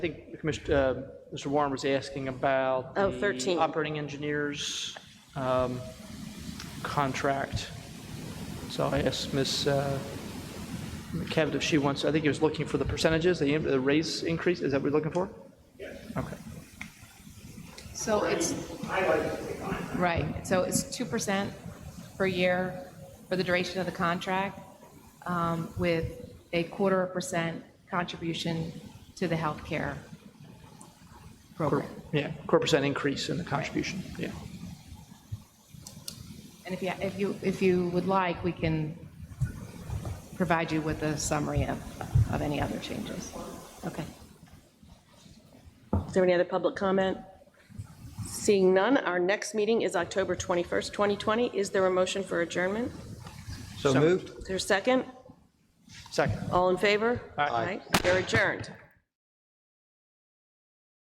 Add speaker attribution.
Speaker 1: I think Commissioner, uh, Mr. Warren was asking about.
Speaker 2: Oh,
Speaker 1: the
Speaker 2: 13.
Speaker 1: Operating engineers, um, contract. So I asked Ms. uh, McCavitt if she wants, I think he was looking for the percentages, the the raise increase, is that what you're looking for? Yes. Okay.
Speaker 3: So it's. Right, so it's two percent per year for the duration of the contract, um, with a quarter of percent contribution to the healthcare program.
Speaker 1: Yeah, quarter percent increase in the contribution, yeah.
Speaker 3: And if you, if you, if you would like, we can provide you with a summary of, of any other changes.
Speaker 2: Okay. Is there any other public comment? Seeing none, our next meeting is October 21st, 2020. Is there a motion for adjournment?
Speaker 4: So moved.
Speaker 2: Is there a second?
Speaker 1: Second.
Speaker 2: All in favor?
Speaker 1: Aye.
Speaker 2: Aye. They're adjourned.